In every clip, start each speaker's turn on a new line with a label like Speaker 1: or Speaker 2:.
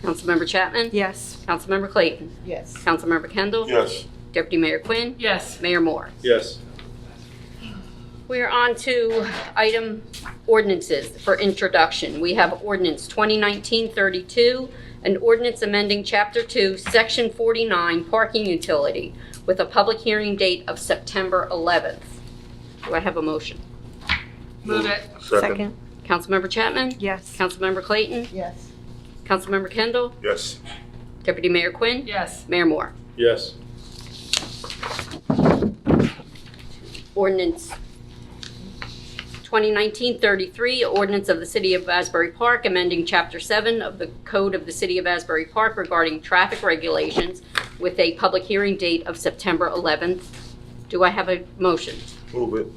Speaker 1: Councilmember Chapman?
Speaker 2: Yes.
Speaker 1: Councilmember Clayton?
Speaker 3: Yes.
Speaker 1: Councilmember Kendall?
Speaker 4: Yes.
Speaker 1: Deputy Mayor Quinn?
Speaker 5: Yes.
Speaker 1: Mayor Moore?
Speaker 4: Yes.
Speaker 1: We are on to item ordinances for introduction. We have ordinance 2019-32, an ordinance amending Chapter 2, Section 49, parking utility, with a public hearing date of September 11th. Do I have a motion?
Speaker 5: Move it.
Speaker 2: Second.
Speaker 1: Councilmember Chapman?
Speaker 2: Yes.
Speaker 1: Councilmember Clayton?
Speaker 3: Yes.
Speaker 1: Councilmember Kendall?
Speaker 4: Yes.
Speaker 1: Deputy Mayor Quinn?
Speaker 5: Yes.
Speaker 1: Mayor Moore?
Speaker 4: Yes.
Speaker 1: Ordinance 2019-33, ordinance of the City of Asbury Park amending Chapter 7 of the Code of the City of Asbury Park regarding traffic regulations with a public hearing date of September 11th. Do I have a motion?
Speaker 4: Move it.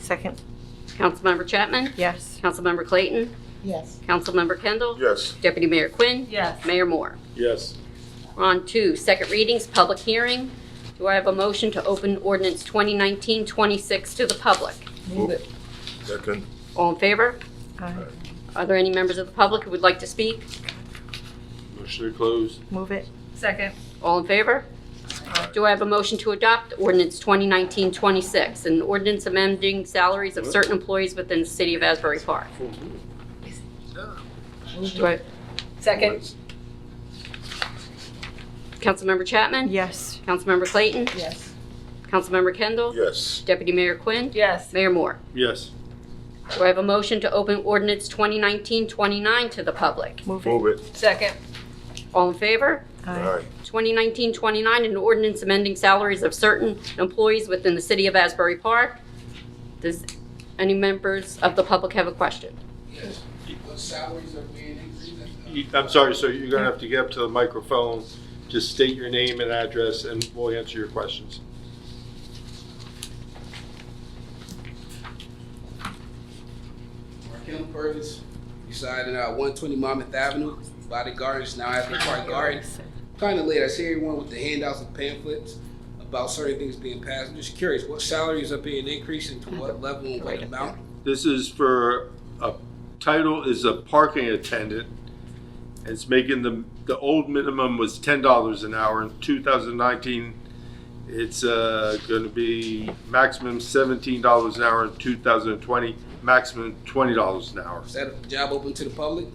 Speaker 2: Second.
Speaker 1: Councilmember Chapman?
Speaker 2: Yes.
Speaker 1: Councilmember Clayton?
Speaker 3: Yes.
Speaker 1: Councilmember Kendall?
Speaker 4: Yes.
Speaker 1: Deputy Mayor Quinn?
Speaker 5: Yes.
Speaker 1: Mayor Moore?
Speaker 4: Yes.
Speaker 1: On to second readings, public hearing. Do I have a motion to open ordinance 2019-26 to the public?
Speaker 3: Move it.
Speaker 4: Second.
Speaker 1: All in favor?
Speaker 2: Aye.
Speaker 1: Are there any members of the public who would like to speak?
Speaker 4: Motion to close.
Speaker 2: Move it.
Speaker 5: Second.
Speaker 1: All in favor? Do I have a motion to adopt ordinance 2019-26, an ordinance amending salaries of certain employees within the city of Asbury Park?
Speaker 3: Move
Speaker 1: Do
Speaker 3: it.
Speaker 1: I,
Speaker 5: Second.
Speaker 1: Councilmember Chapman?
Speaker 2: Yes.
Speaker 1: Councilmember Clayton?
Speaker 3: Yes.
Speaker 1: Councilmember Kendall?
Speaker 4: Yes.
Speaker 1: Deputy Mayor Quinn?
Speaker 5: Yes.
Speaker 1: Mayor Moore?
Speaker 4: Yes.
Speaker 1: Do I have a motion to open ordinance 2019-29 to the public?
Speaker 2: Move it.
Speaker 4: Move it.
Speaker 5: Second.
Speaker 1: All in favor?
Speaker 2: Aye.
Speaker 1: 2019-29, an ordinance amending salaries of certain employees within the city of Asbury Park. Does any members of the public have a question?
Speaker 6: Yes, What salaries are being increased?
Speaker 4: You- I'm sorry, sir, you're gonna have to get up to the microphone, just state your name and address, and we'll answer your questions.
Speaker 6: Markel Purvis, residing at one twenty Monmouth Avenue, by the gardens, now at the Park Garden. Kinda late, I see everyone with the handouts and pamphlets about certain things being passed. I'm just curious, what salaries are being increased and to what level and what amount?
Speaker 4: This is for, a title is a parking attendant. It's making the, the old minimum was ten dollars an hour. In two thousand nineteen, it's, uh, gonna be maximum seventeen dollars an hour. In two thousand twenty, maximum twenty dollars an hour.
Speaker 6: Is that a job open to the public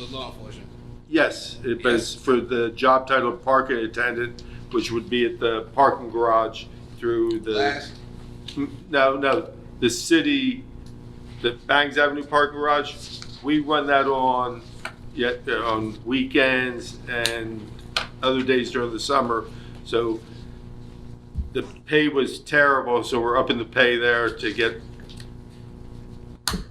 Speaker 6: or law enforcement?
Speaker 4: Yes, it- but it's for the job title parking attendant, which would be at the parking garage through the.
Speaker 6: Last,
Speaker 4: No, no, the city, the Bangs Avenue Park Garage, we run that on, yeah, on weekends and other days during the summer. So the pay was terrible, so we're upping the pay there to get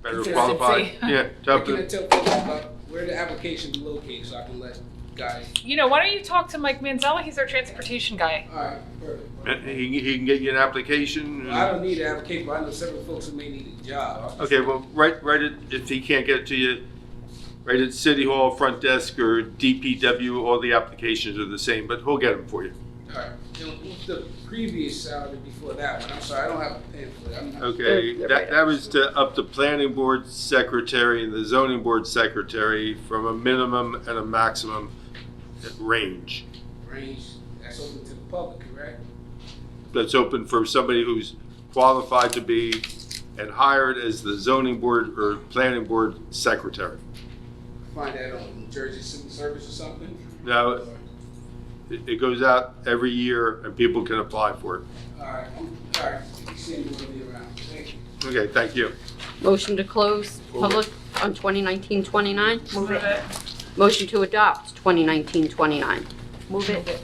Speaker 4: better
Speaker 6: Consistency.
Speaker 4: qualified. Yeah, to
Speaker 6: I
Speaker 4: up
Speaker 6: can
Speaker 4: the-
Speaker 6: tell people about where the application is located so I can let guys,
Speaker 5: You know, why don't you talk to Mike Manzella? He's our transportation guy.
Speaker 6: alright, perfect.
Speaker 4: he, can- he can get you an application.
Speaker 6: I don't need an application, but I know several folks who may need a job.
Speaker 4: Okay, well, write, write it, if he can't get it to you, write it City Hall, front desk, or DPW, all the applications are the same, but he'll get them for you.
Speaker 6: Alright, and what's the previous salary before that one? I'm sorry, I don't have a pamphlet. I'm not.
Speaker 4: Okay,
Speaker 1: They're- they're right
Speaker 4: that, that was to up the planning board secretary and the zoning board secretary from a minimum and a maximum range.
Speaker 6: Range, that's open to the public, correct?
Speaker 4: That's open for somebody who's qualified to be and hired as the zoning board or planning board secretary.
Speaker 6: Find that on New Jersey Civil Service or something?
Speaker 4: Now, it, it goes out every year and people can apply for it.
Speaker 6: Alright, alright, you see me when you're around. Thank you.
Speaker 4: Okay, thank you.
Speaker 1: Motion to close public on 2019-29?
Speaker 5: Move it.
Speaker 1: Motion to adopt 2019-29.
Speaker 2: Move it.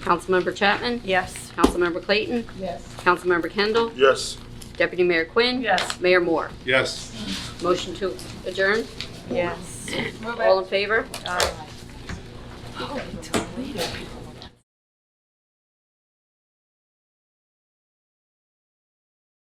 Speaker 1: Councilmember Chapman?
Speaker 2: Yes.
Speaker 1: Councilmember Clayton?
Speaker 3: Yes.
Speaker 1: Councilmember Kendall?
Speaker 4: Yes.
Speaker 1: Deputy Mayor Quinn?
Speaker 5: Yes.
Speaker 1: Mayor Moore?
Speaker 4: Yes.
Speaker 1: Motion to adjourn?
Speaker 2: Yes.
Speaker 5: Move
Speaker 1: All
Speaker 5: it.
Speaker 1: in favor?
Speaker 2: Aye.